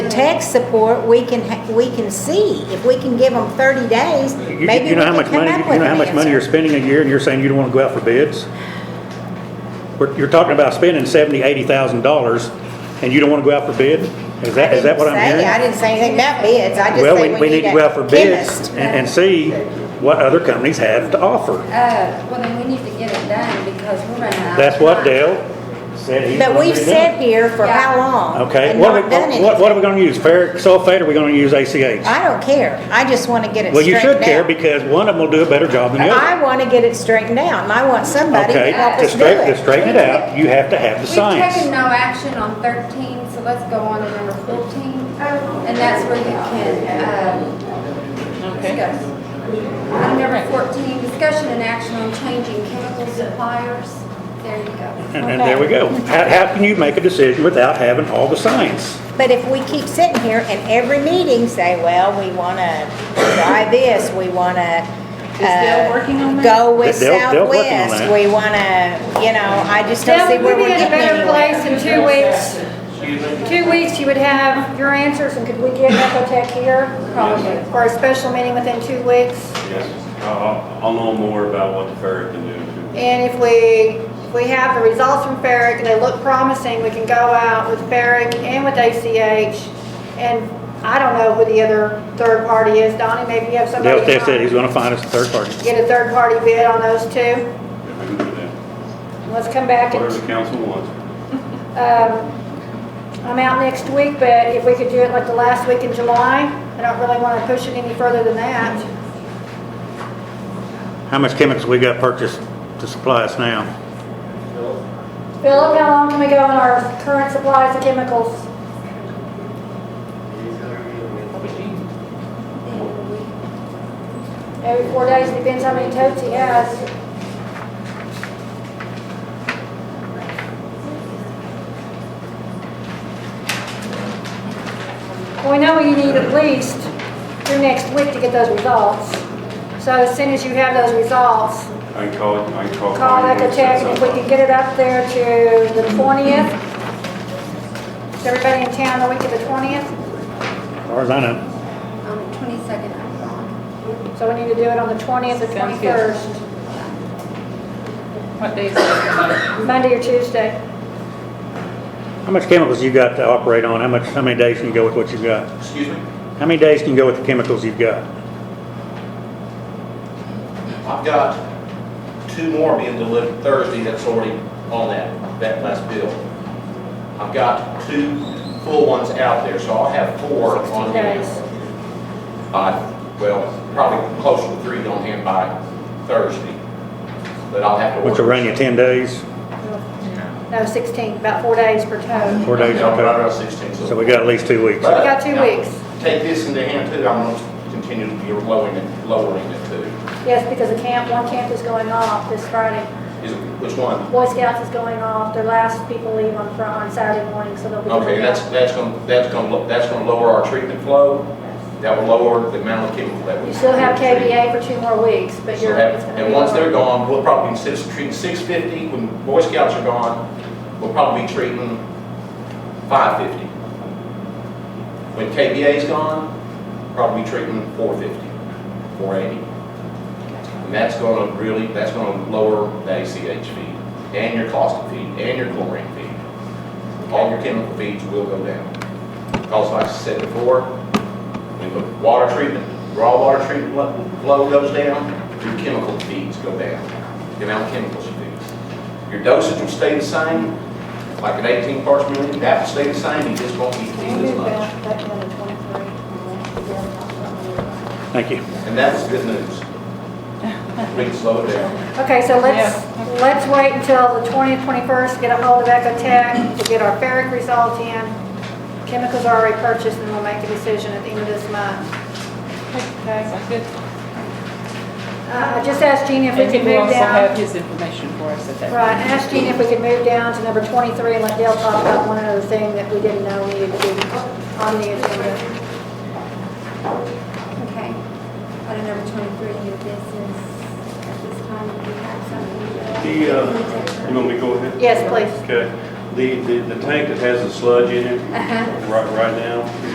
tax support, we can, ha- we can see, if we can give them 30 days, You- You maybe you we know how can much come money, up you with know how an much money answer. you're spending a year, and you're saying you don't want to go out for bids? We're- You're talking about spending seventy, eighty thousand dollars, and you don't want to go out for bid? Is that, is that what I'm I didn't say- I hearing? didn't say anything about bids, I just Well, we, say we need to go out for a bids chemist. and, and see what other companies have to offer. Uh, well, then we need to get it done because we're running out. of That's what time. Dale said he was But gonna we've do. said here for Yeah. how long? Okay, and what are not we, done what, what are we gonna use, ferric sulfate, or are we gonna use ACH? I don't care, I just want to get it Well, you straightened out. should care, because one of them will do a better job than the other. I want to get it straightened out, and I want somebody Okay, to help to us do straighten, to it. straighten it out, you have to have the We've taken science. no action on thirteen, so let's go on to number fourteen. And that's where you can, um, Okay. discuss. Item number fourteen, discussion and action on changing chemical suppliers. There you go. And, and there we go. How, how can you make a decision without having all the science? But if we keep sitting here and every meeting say, well, we want to try this, we want to. Dale working on that? Go with Dale- Dale's working on Southwest, that. we want to, you know, I just don't see where we're We'd be in a getting better place anywhere. in two weeks. Two weeks, you would have your answers, and could we get Ecotech here? Probably. For a special meeting within two weeks? Yes, I'll, I'll know more about what the ferry can do. And if we, if we have the results from Ferric and they look promising, we can go out with Ferric and with ACH. And I don't know who the other third party is. Donnie, maybe you have somebody. Dale, in Dale said mind. he's gonna find us a third party. Get a third party bid on those two. If we can do that. Let's come back and, Whatever the council wants. um, I'm out next week, but if we could do it like the last week in July, I don't really want to push it any further than that. How much chemicals we got purchased to supply us now? Philip, how long can we go on our current supplies of chemicals? Every four days, depends how many totes he has. Well, we know you need at least through next week to get those results. So as soon as you have those results, I can call, I can call. call Connie and set Ecotech, if we something can get it up there to the 20th. Is everybody in town the week of the 20th? As far as I know. On the twenty-second, I'm gone. So we need to do it on the 20th or Sounds good. 21st, What day is it? Monday or Tuesday. How much chemicals you got to operate on? How much, how many days can you go with what you got? Excuse me? How many days can you go with the chemicals you've got? I've got two more being delivered Thursday that's already on that, that last bill. I've got two full ones out there, so I'll have four on 16 hand. days. Uh, well, probably closer to three on hand by Thursday, but I'll have to. Which will order. run you ten days, No, 16, about four days per tote. four days. Yeah, right okay. around sixteen, so. So we got at least two weeks. We got two weeks. Take this into hand too, I'm gonna continue to be lowering it, lowering it too. Yes, because the camp, one camp is going off this Friday. Is, which one? Boy Scouts is going off, their last people leave on Fri- on Saturday morning, so they'll be. Okay, going that's, out. that's gonna, that's gonna, lo- that's gonna lower our treatment flow. That will lower the amount of chemical that we. You still have KBA for two more weeks, but So you're. that- it's gonna And be once more. they're gone, we'll probably, instead of treating six fifty, when Boy Scouts are gone, we'll probably be treating five fifty. When KBA's gone, probably treating four fifty, four eighty. And that's gonna really, that's gonna lower the ACH feed, and your caustic feed, and your chlorine feed. All your chemical feeds will go down. Because like I said before, when the water treatment, raw water treatment lo- flow goes down, your chemical feeds go down, the amount of chemicals you use. Your dosage will stay the same, like at 18 parts per million, that will stay the same, you just won't be eating as much. Thank you. And that's good news. We can slow it down. Okay, so let's, let's wait until the 20th, 21st, get a hold of Ecotech to get our ferric results in. Chemicals are already purchased, and we'll make a decision at the end of this month. Sounds good. Uh, I just asked Gina if we And he could will move also have down. his information for us at that. Right, I asked Gina if we could move down to number 23 and let Dale talk about one other thing that we didn't know needed to be on the agenda. Okay. Item number twenty-three, new business. At this time, we have something. The, uh, you want me to go ahead? Yes, please. Okay. The, the, the tank that has the sludge in it Uh-huh. right, right now,